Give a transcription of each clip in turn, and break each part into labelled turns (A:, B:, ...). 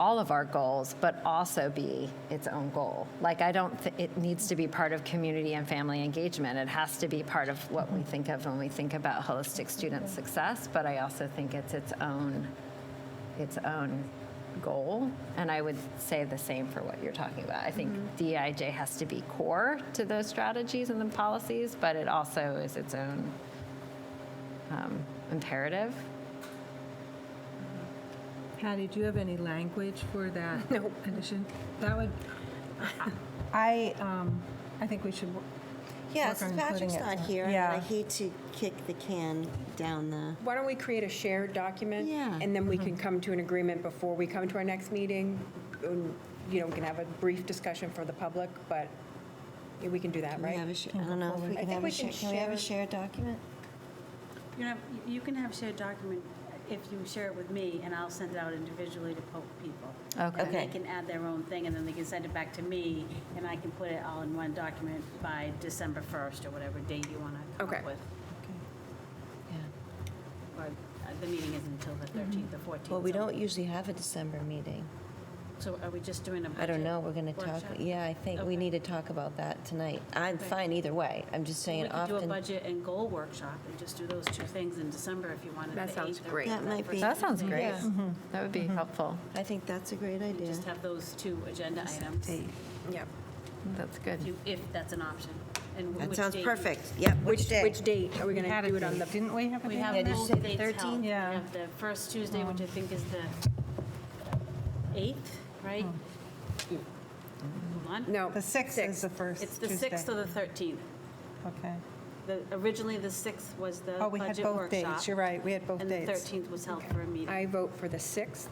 A: all of our goals, but also be its own goal. Like, I don't, thi- it needs to be part of community and family engagement. It has to be part of what we think of when we think about holistic student success, but I also think it's its own, its own goal. And I would say the same for what you're talking about. I think DIJ has to be core to those strategies and the policies, but it also is its own um, imperative.
B: Patty, do you have any language for that? No. Addition? That would, I, um, I think we should, wo-
C: Yeah,
B: work
C: since
B: on
C: Patrick's
B: including it.
C: not here, I mean, I
B: Yeah.
C: hate to kick the can down the,
D: Why don't we create a shared document?
C: Yeah.
D: And then we can come to an agreement before we come to our next meeting. And, You know, we can have a brief discussion for the public, but yeah, we can do that,
C: we have
D: right?
C: a sh- I don't know if we
D: I
C: can
D: think
C: have
D: we
C: a
D: can
C: shared, can we have a
D: share-
C: shared document?
E: You have, you can have shared document if you share it with me, and I'll send it out individually to po- people.
A: Okay.
E: And they
C: Okay.
E: can add their own thing, and then they can send it back to me, and I can put it all in one document by December 1st, or whatever date you want to come
D: Okay.
E: up with. Or, uh, the meeting isn't until the 13th or 14th.
F: Mm-hmm. Well, we
E: so-
F: don't usually have a December meeting.
E: So are we just doing a
F: I don't
E: budget
F: know, we're going to talk,
E: workshop?
F: yeah, I think we
E: Okay.
F: need to talk about that tonight. I'm fine either way, I'm just
E: We
F: saying
E: could do a
F: often,
E: budget and goal workshop, and just do those two things in December if you wanted.
D: That
E: the
D: sounds
E: 8th or
D: great.
C: That
E: the
C: might
E: first
C: be-
A: That sounds
E: Tuesday.
A: great. That would be helpful.
C: I think that's a great
E: You
C: idea.
E: just have those two agenda items.
D: Yep.
A: That's good.
E: you- if that's an option. and
C: That
E: which
C: sounds
E: date you-
C: perfect, yep, which day?
D: Which date? Are we going
B: had
D: to
B: a
D: do it on
B: date.
D: the,
B: Didn't we have a
E: We
B: date?
E: have
F: Yeah, did you
E: both
F: say the
E: dates
F: 13th?
E: held. We
B: Yeah.
E: have the first Tuesday, which I think is the 8th, right? Hold on.
D: no.
B: The 6th is
D: sixth.
B: the first
E: It's
B: Tuesday.
E: the 6th or the 13th.
B: Okay.
E: The- Originally, the 6th was the budget
B: Oh,
E: workshop.
B: we had both dates, you're right, we had both
E: And the
B: dates.
E: 13th was held for a meeting.
D: I vote for the 6th.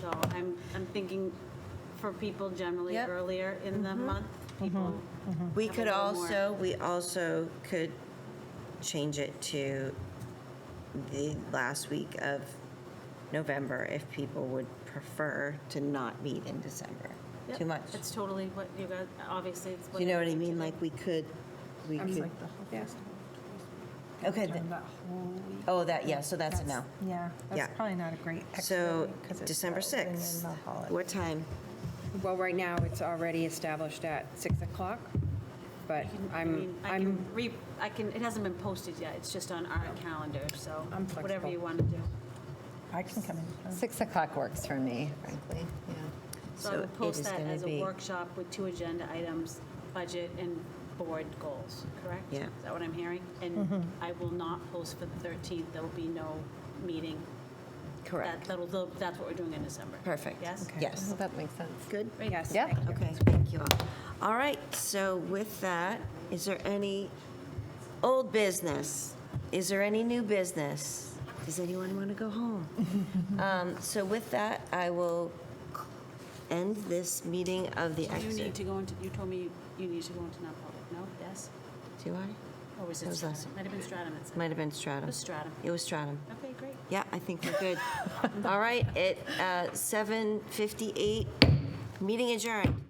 E: So I'm, I'm thinking for people generally
F: Yep.
E: earlier in the month, people.
C: We
E: have a
C: could
E: little more-
C: also, we also could change it to the last week of November if people would prefer to not meet in December.
E: Yep.
C: Too much.
E: It's totally what you got, obviously, it's what.
C: Do you know
E: it
C: what I
E: is.
C: mean? Like, we could, we
D: I'm
C: could,
D: like the whole festival.
C: okay,
B: During
C: th-
B: that whole week.
C: oh, that, yeah, so that's a no.
B: Yeah,
C: Yeah.
B: that's probably not a great extra
C: So,
B: week 'cause it's
C: December
B: building in
C: 6th,
B: the holiday.
C: what time?
D: Well, right now, it's already established at 6 o'clock, but
E: I
D: I'm,
E: mean, I
D: I'm,
E: can re, I can, it hasn't been posted yet, it's just on our calendar, so
B: I'm
E: whatever
B: flexible.
E: you want to do.
B: I can come in.
A: Six o'clock works for me, frankly, yeah.
E: So I
C: So
E: would
C: it
E: post
C: is
E: that
C: gonna
E: as a
C: be-
E: workshop with two agenda items, budget and board goals, correct?
C: Yeah.
E: Is that what I'm hearing? And
D: Mm-hmm.
E: I will not post for the 13th, there will be no meeting. That- That'll, that'll- that's what we're doing in December.
C: Perfect.
E: Yes?
C: Yes.
A: Well, that makes sense.
C: Good?
D: yes.
A: Yeah.
D: thank you.
C: Okay, thank you all. All right, so with that, is there any old business? Is there any new business? Does anyone want to go home? Um, So with that, I will end this meeting of the
E: You need
C: exit.
E: to go into, you told me you need to go into non-public, no? Yes?
C: Do I?
E: Or was
C: That
E: it
C: was
E: Stratum?
C: us.
E: Might have been Stratum that said.
C: Might have been
E: It
C: Stratum.
E: was Stratum.
C: It was Stratum.
E: Okay, great.
C: Yeah, I think we're good. All right, at uh, 7:58, meeting adjourned.